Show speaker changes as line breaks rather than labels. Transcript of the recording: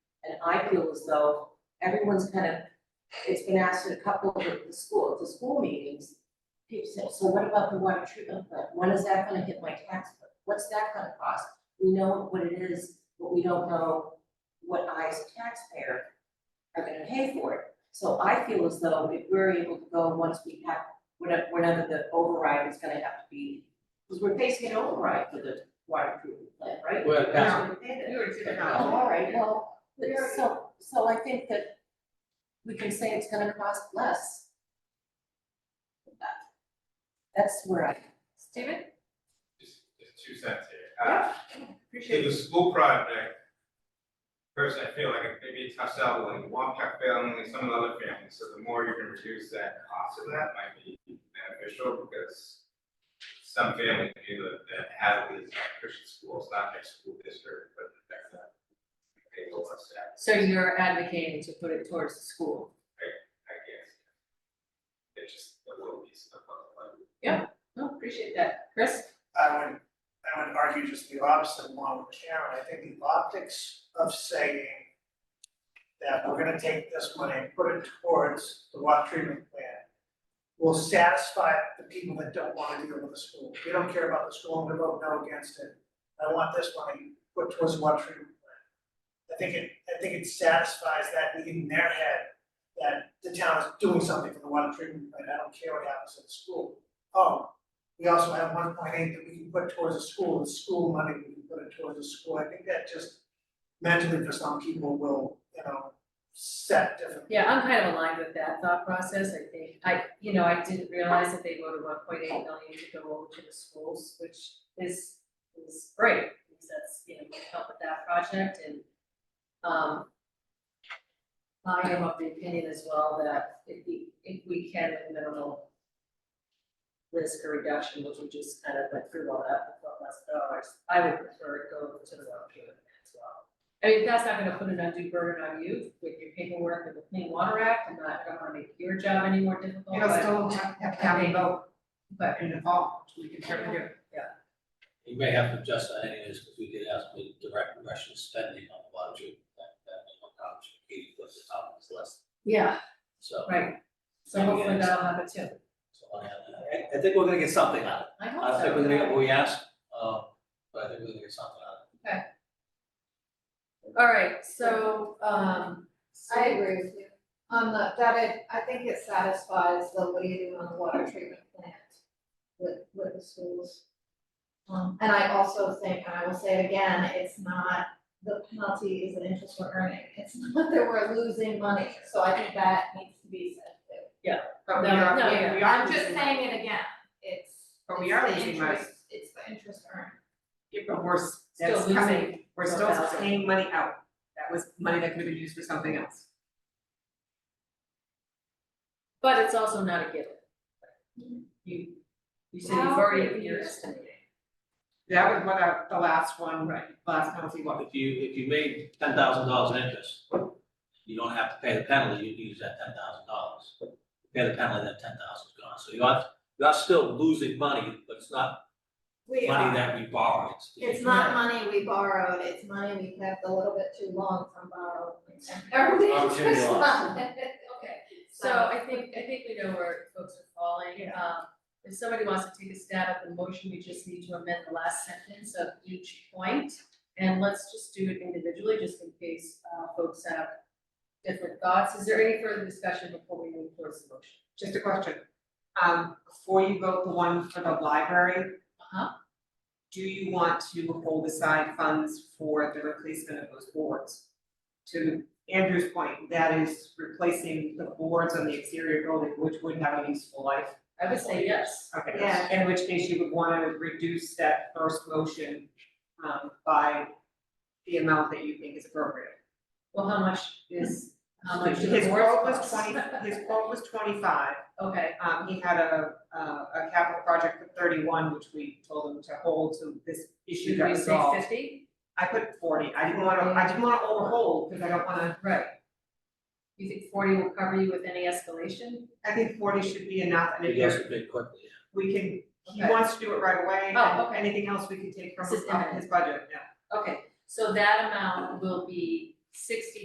I feel as though everyone's kind of, it's been asked at a couple of the school, the school meetings. People say, so what about the water treatment plant? When is that gonna hit my tax bill? What's that gonna cost? We know what it is, but we don't know what I as a taxpayer are gonna pay for it. So I feel as though if we're able to go once we have, whenever, whenever the override is gonna have to be, because we're facing an override for the water treatment plant, right?
Well, that's-
Now, we paid it.
We were two and a
Oh,
half.
all right, well, but so, so I think that we can say it's gonna cost less. That- That's where I,
Steven?
just, just two cents here. Uh, In the school project, first, I feel like it maybe it touched out like Wampatuck family and some of the other families, so the more you can reduce that cost of that might be beneficial, because some families do that, that have these Christian schools, not their school district, but that's a, they go us that,
So you're advocating to put it towards the school?
I guess. It's just a little piece of, like,
Oh, appreciate that. Chris?
I would, I would argue just the opposite along with Karen, I think the optics of saying that we're gonna take this money and put it towards the water treatment plan will satisfy the people that don't wanna deal with the school, they don't care about the school, they vote no against it, I want this money put towards the water treatment plan. I think it, I think it satisfies that need in their head, that the town is doing something for the water treatment plan, I don't care what happens at the school. Oh, we also have one point eight that we can put towards a school, the school money, we can put it towards a school, I think that just mentally for some people will, you know, set different.
Yeah, I'm kind of aligned with that thought process, I think, I, you know, I didn't realize that they voted one point eight million to go over to the schools, which is, is great, because that's, you know, gonna help with that project and, um, I am of the opinion as well that if we, if we can with minimal risk or reduction, which we just kind of went through all that, with one less dollars, I would prefer it go to the water treatment plant as well. I mean, that's not gonna put an undue burden on you with your paperwork with the Clean Water Act, I'm not, I don't wanna make your job any more difficult,
It'll
but,
still have, have to have a vote, but in the fall, we can certainly do.
You may have to adjust that anyways, because we did ask for direct Russian spending on the water treatment plant, that was one option, eighty foot the top of this list,
yeah,
so.
right. So hopefully that'll happen too,
so I, I- I think we're gonna get something out of it,
I
I
hope
don't
so.
think we're gonna get what we asked, uh, but I think we're gonna get something out of it.
All right, so, um.
I agree with you. On the, that it, I think it satisfies the what do you do on the water treatment plant with, with the schools. Um, and I also think, and I will say it again, it's not, the penalty is the interest we're earning. It's not that we're losing money, so I think that needs to be said too.
But we
No,
are,
no,
we-
yeah.
we are
I'm just
losing money.
saying it again, it's,
But we
it's
are
the
losing money.
interest, it's the interest earned.
Yeah, but we're s-
Still
that's
losing
coming, we're still
4,000.
paying money out. That was money that could have been used for something else.
But it's also not a given. You, you said you've already, you're estimating.
That was what I, the last one, right, last penalty was.
If you, if you made ten thousand dollars in interest, you don't have to pay the penalty, you can use that ten thousand dollars. Pay the penalty, that ten thousand is gone, so you are, you are still losing money, but it's not
We are-
money that we borrowed.
It's not money we borrowed, it's money we kept a little bit too long from borrowed. Everybody's
Okay,
just
yeah.
not, okay.
So I think, I think we know where folks are falling. Um, if somebody wants to take a stab at the motion, we just need to amend the last sentence of each point. And let's just do it individually, just in case, uh, folks have different thoughts. Is there any further discussion before we move towards the motion?
Just a question. Um, before you vote the one for the library.
Uh-huh.
Do you want to hold aside funds for the replacement of those boards? To Andrew's point, that is replacing the boards on the exterior building, which would have a useful life.
I would say yes.
Okay.
Yeah.
In which case you would wanna reduce that first motion, um, by the amount that you think is appropriate.
Well, how much is, how much is the
His
board's
quote was
cost?
twenty, his quote was twenty-five,
Okay,
um, he had a, a, a capital project for thirty-one, which we told him to hold to this issue
should
got
we
resolved.
say fifty?
I put forty, I didn't wanna, I didn't wanna overhold, cause I don't wanna,
Right. You think forty will cover you with any escalation?
I think forty should be enough, and if
It goes
there's,
a bit quickly,
we can, he
Okay.
wants to do it right away, and
Oh, okay.
anything else we can take from
This is
uh,
imminent.
his budget, yeah.
Okay, so that amount will be sixty